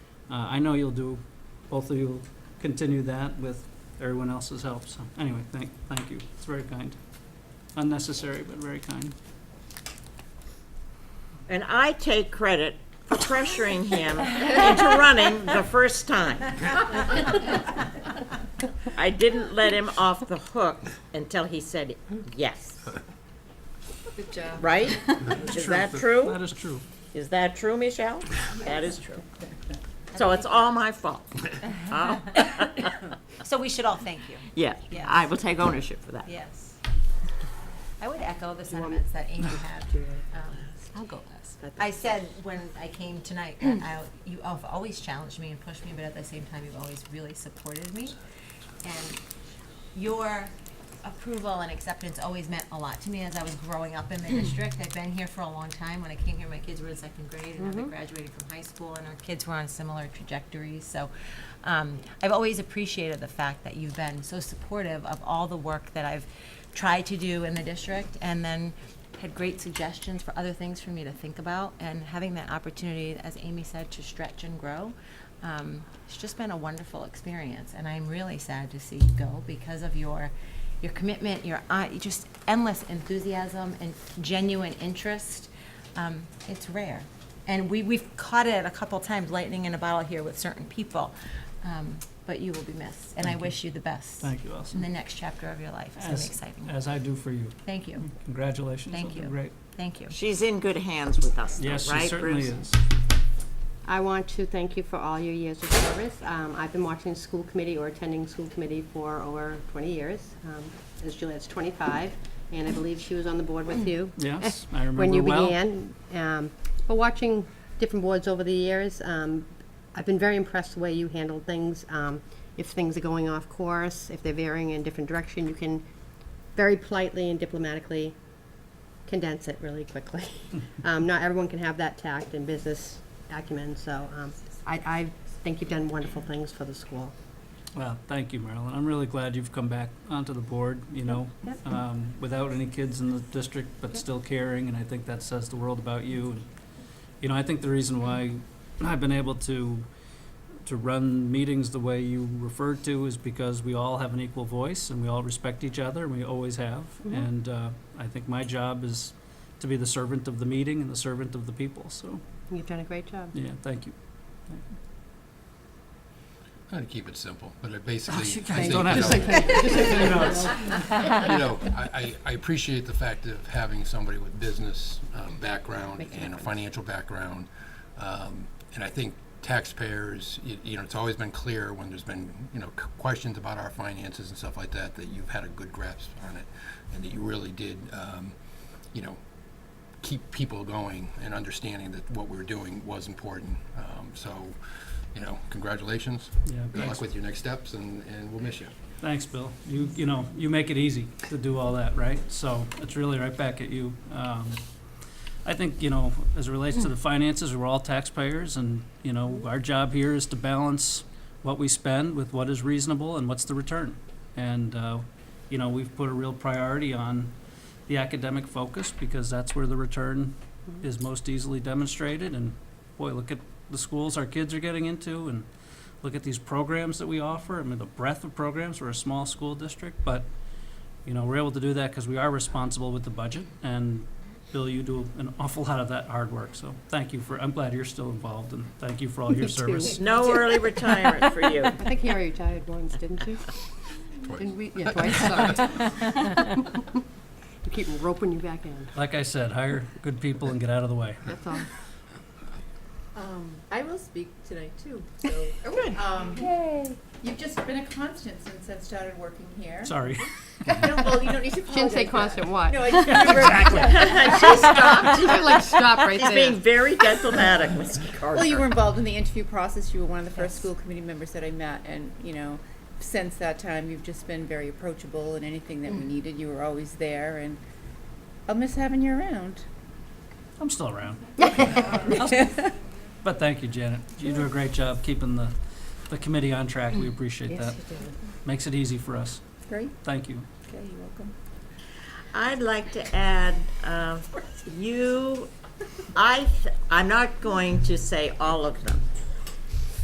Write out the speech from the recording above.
Uh, I know you'll do, both of you will continue that with everyone else's help, so anyway, thank, thank you. It's very kind. Unnecessary, but very kind. And I take credit for pressuring him into running the first time. I didn't let him off the hook until he said yes, Good job. right? Is that true? That is true. Is that true, Michelle? That is true. So it's all my fault. Oh, So we should all thank you, Yeah, I will take ownership for that. yes. I would echo the sentiments that Amy had, Julie. Um, I'll go last. I said when I came tonight, that I, you have always challenged me and pushed me, but at the same time, you've always really supported me. And your approval and acceptance always meant a lot to me as I was growing up in the district. I've been here for a long time. When I came here, my kids were in second grade, and I graduated from high school, and our kids were on similar trajectories. So um, I've always appreciated the fact that you've been so supportive of all the work that I've tried to do in the district, and then had great suggestions for other things for me to think about. And having that opportunity, as Amy said, to stretch and grow, um, it's just been a wonderful experience, and I'm really sad to see you go because of your your commitment, your uh, just endless enthusiasm and genuine interest. Um, it's rare, and we we've caught it a couple times, lightning in a bottle here with certain people. Um, but you will be missed, and I wish you the best Thank you, in the Allison. next chapter of your life. It's gonna be As- exciting. As I do for you. Thank you, Congratulations. Thank It'll be you. Great. thank you. She's in good hands with us, though, right? Yes, she certainly Bruce? is. I want to thank you for all your years of service. Um, I've been watching school committee or attending school committee for over 20 years. Um, As Juliet's 25, and I believe she was on the board with you. Yes, I When you remember well. began. Um, But watching different boards over the years, um, I've been very impressed the way you handle things. Um, If things are going off course, if they're veering in different direction, you can very politely and diplomatically condense it really quickly. um, not everyone can have that tact and business acumen, so um, I, I think you've done wonderful things for the school. Well, thank you, Marilyn. I'm really glad you've come back onto the board, you know, Yep. um, without any kids in the district, but still caring, and I think that says the world about you. And You know, I think the reason why I've been able to, to run meetings the way you referred to is because we all have an equal voice, and we all respect each other, and we always have. Mhm. And uh, I think my job is to be the servant of the meeting and the servant of the people, so, You've done a great job. yeah, thank you. Try to keep it simple, but it basically, I you think, guys you don't have to know, Yes. you know, I, I I appreciate the fact of having somebody with business um, background Makes a and a difference. financial background. Um, And I think taxpayers, you, you know, it's always been clear when there's been, you know, c- questions about our finances and stuff like that, that you've had a good grasp on it and that you really did, um, you know, keep people going and understanding that what we were doing was important. Um, So, you know, congratulations. Yeah, Good thanks. luck with your next steps and, and we'll miss you. Thanks, Bill. You, you know, you make it easy to do all that, right? So it's really right back at you. Um, I think, you know, as it relates to the finances, we're all taxpayers and, you know, our job here is to balance what we spend with what is reasonable and what's the return. And, uh, you know, we've put a real priority on the academic focus because that's where the return is most easily demonstrated. And boy, look at the schools our kids are getting into and look at these programs that we offer. I mean, the breadth of programs. We're a small school district, but you know, we're able to do that because we are responsible with the budget. And Bill, you do an awful lot of that hard work. So thank you for. I'm glad you're still involved, and thank you for all your too. service. No early retirement for you. I think you already retired once, didn't you? Twice. Didn't we? Yeah, twice, sorry. We keep roping you back in, Like I said, hire good people and get out of the way. that's all. Um, I will speak tonight too, so. Um, You've just been a constant since I've started working here. Sorry. No, well, you don't need to apologize. Shouldn't say for that. constant what? No, I just remember. She stopped. You should, like stop right She's being there. very diplomatic, Mr. Carter. Well, you were involved in the interview process. You were one of the first school committee members that I met, and you know, since that time, you've just been very approachable. And anything that we needed, you were always there. And I'll miss having you around. I'm still around. But thank you, Janet. You do a great job keeping the, the committee on track. We appreciate that. Makes it easy for us. Great. Thank you. Okay, you're welcome. I'd like to add, uh, you, I, th- I'm not going to say all of them,